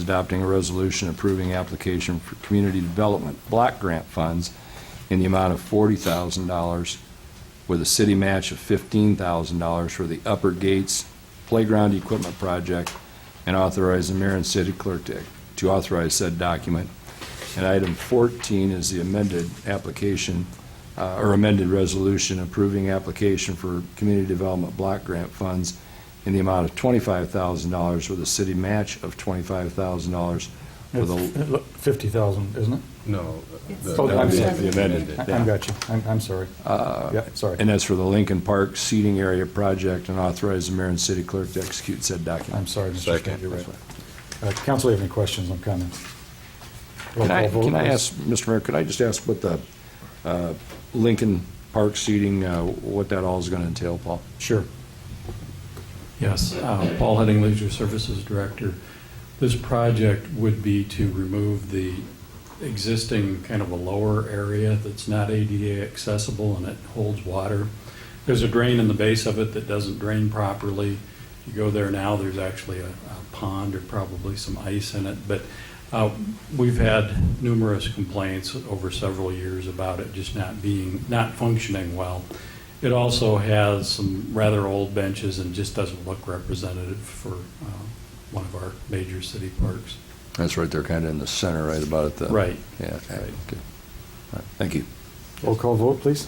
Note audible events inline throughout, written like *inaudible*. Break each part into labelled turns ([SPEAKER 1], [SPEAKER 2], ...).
[SPEAKER 1] adopting a resolution approving application for community development block grant funds in the amount of $40,000 with a city match of $15,000 for the Upper Gates Playground Equipment Project and authorize the mayor and city clerk to to authorize said document. And item 14 is the amended application, uh, or amended resolution approving application for community development block grant funds in the amount of $25,000 with a city match of $25,000 with a,
[SPEAKER 2] It's 50,000, isn't it?
[SPEAKER 3] No. uh, the-
[SPEAKER 2] Oh, I'm
[SPEAKER 3] the-
[SPEAKER 2] sorry.
[SPEAKER 3] the amended.
[SPEAKER 2] I I'm got you. I'm I'm sorry. Yep, sorry.
[SPEAKER 1] Uh, and that's for the Lincoln Park Seating Area Project, and authorize the mayor and city clerk to execute said document.
[SPEAKER 2] I'm sorry, Mr. Scott,
[SPEAKER 3] Second.
[SPEAKER 2] you're right. Uh, Council, have any questions on comments? Roll
[SPEAKER 1] Can I,
[SPEAKER 2] call vote,
[SPEAKER 1] can I
[SPEAKER 2] please.
[SPEAKER 1] ask, Mr. Mayor, could I just ask what the uh, Lincoln Park Seating, uh, what that all is going to entail, Paul?
[SPEAKER 2] Sure.
[SPEAKER 4] Yes, uh, Paul Heading, Leisure Services Director. This project would be to remove the existing kind of a lower area that's not ADA accessible and it holds water. There's a drain in the base of it that doesn't drain properly. You go there now, there's actually a a pond or probably some ice in it, but uh, we've had numerous complaints over several years about it just not being, not functioning well. It also has some rather old benches and just doesn't look representative for uh, one of our major city parks.
[SPEAKER 1] That's right there, kind of in the center, right about at the.
[SPEAKER 4] Right.
[SPEAKER 1] Yeah, okay.
[SPEAKER 4] Right.
[SPEAKER 1] okay. All right, Thank you.
[SPEAKER 2] Roll call vote, please.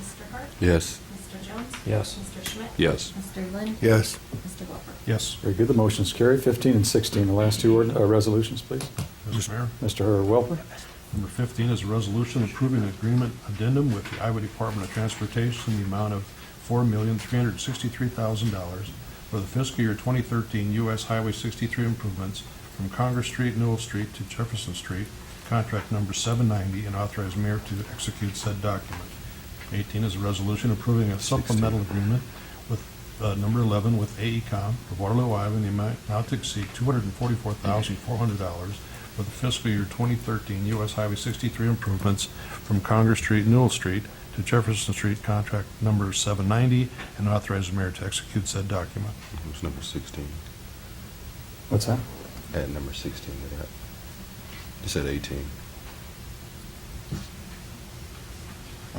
[SPEAKER 5] Mr. Hart?
[SPEAKER 3] Yes.
[SPEAKER 5] Mr. Jones?
[SPEAKER 2] Yes.
[SPEAKER 5] Mr. Schmidt?
[SPEAKER 1] Yes.
[SPEAKER 5] Mr. Lind?
[SPEAKER 3] Yes.
[SPEAKER 5] Mr. Welper?
[SPEAKER 2] Yes. Very good. The motion's carried. 15 and 16, the last two ord- uh, resolutions, please.
[SPEAKER 6] Mr. Mayor,
[SPEAKER 2] Mr. Welper?
[SPEAKER 6] number 15 is a resolution approving an agreement addendum with the Iowa Department of Transportation in the amount of $4,363,000 for the fiscal year 2013 U.S. Highway 63 improvements from Congress Street, Newell Street to Jefferson Street, contract number 790, and authorize mayor to execute said document. 18 is a resolution approving a supplemental agreement with uh, number 11 with AECom of Waterloo, Iowa, in the amount not to exceed $244,400 for the fiscal year 2013 U.S. Highway 63 improvements from Congress Street, Newell Street to Jefferson Street, contract number 790, and authorize the mayor to execute said document.
[SPEAKER 3] It was number 16.
[SPEAKER 2] What's that?
[SPEAKER 3] Add number 16 to that. You said 18.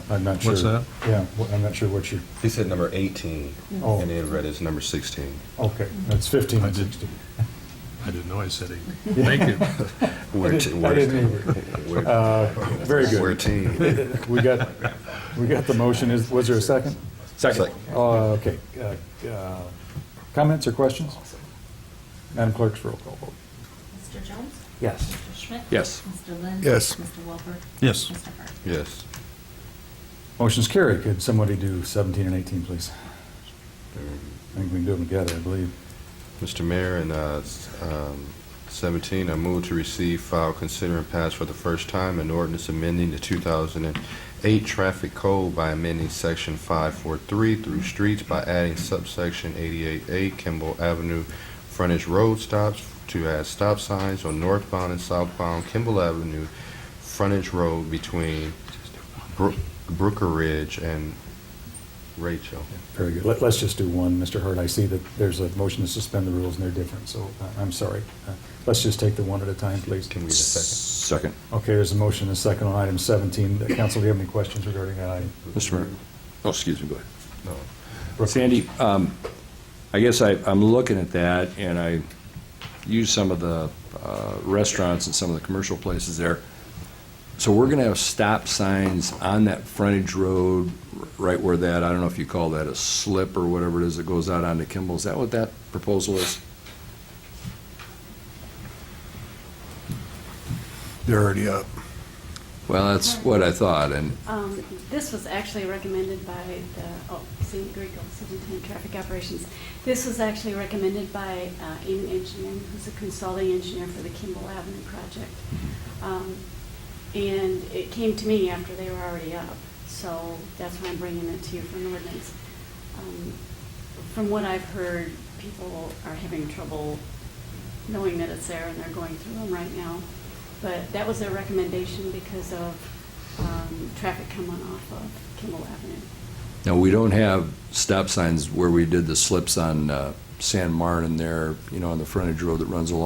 [SPEAKER 2] I'm not sure.
[SPEAKER 6] What's that?
[SPEAKER 2] Yeah, wh- I'm not sure what you're,
[SPEAKER 3] He said number 18,
[SPEAKER 2] Oh.
[SPEAKER 3] and then read as number 16.
[SPEAKER 2] okay, that's 15
[SPEAKER 6] I
[SPEAKER 2] and
[SPEAKER 6] did-
[SPEAKER 2] *laughs* 16.
[SPEAKER 6] I didn't know I said *laughs* eight. Thank you.
[SPEAKER 3] We're a
[SPEAKER 2] didn't-
[SPEAKER 3] te-
[SPEAKER 2] I
[SPEAKER 3] we're a
[SPEAKER 2] didn't
[SPEAKER 3] team. We're-
[SPEAKER 2] Uh, Very
[SPEAKER 3] We're a
[SPEAKER 2] good.
[SPEAKER 3] team.
[SPEAKER 2] We got, we got the motion. Is Was there a second?
[SPEAKER 3] Second.
[SPEAKER 2] Uh, Okay. Uh, uh, Comments or questions? Madam Clerk's roll call vote.
[SPEAKER 5] Mr. Jones?
[SPEAKER 2] Yes.
[SPEAKER 5] Mr. Schmidt?
[SPEAKER 1] Yes.
[SPEAKER 5] Mr. Lind?
[SPEAKER 3] Yes.
[SPEAKER 5] Mr. Welper?
[SPEAKER 6] Yes.
[SPEAKER 5] Mr. Hart?
[SPEAKER 3] Yes.
[SPEAKER 2] Motion's carried. Could somebody do 17 and 18, please? I think we can do them together, I believe.
[SPEAKER 3] Mr. Mayor, in uh, s- um, 17, I move to receive, file, consider, and pass for the first time an ordinance amending the 2008 Traffic Code by amending Section 543 through streets by adding subsection 88A Kimball Avenue frontage road stops to add stop signs on northbound and southbound Kimball Avenue frontage road between Brook- Brooker Ridge and Rachel.
[SPEAKER 2] Very good. Let- Let's just do one, Mr. Hurd. I see that there's a motion to suspend the rules, and they're different, so I- I'm sorry. Uh, Let's just take the one at a time, please.
[SPEAKER 3] Can we get a
[SPEAKER 1] Second.
[SPEAKER 3] second?
[SPEAKER 2] Okay, there's a motion and a second on item 17. Uh, Council, do you have any questions regarding that item?
[SPEAKER 1] Mr. Mayor. Oh, excuse me, go ahead.
[SPEAKER 3] No.
[SPEAKER 2] Brooke?
[SPEAKER 1] Sandy, um, I guess I, I'm looking at that, and I use some of the uh, restaurants and some of the commercial places there. So we're gonna have stop signs on that frontage road, r- right where that, I don't know if you call that a slip or whatever it is that goes out onto Kimball. Is that what that proposal is?
[SPEAKER 7] They're already up.
[SPEAKER 1] Well, that's what I thought, and,
[SPEAKER 8] Um, This was actually recommended by the, oh, San Diego Superintendent of Traffic Operations. This was actually recommended by uh, Amy Engineering, who's a consulting engineer for the Kimball Avenue project. Um, And it came to me after they were already up, so that's why I'm bringing it to you for an ordinance. Um, From what I've heard, people are having trouble knowing that it's there, and they're going through them right now. But that was their recommendation because of um, traffic coming off of Kimball Avenue.
[SPEAKER 1] now, we don't have stop signs where we did the slips on uh, San Martin there, you know, on the frontage road that runs along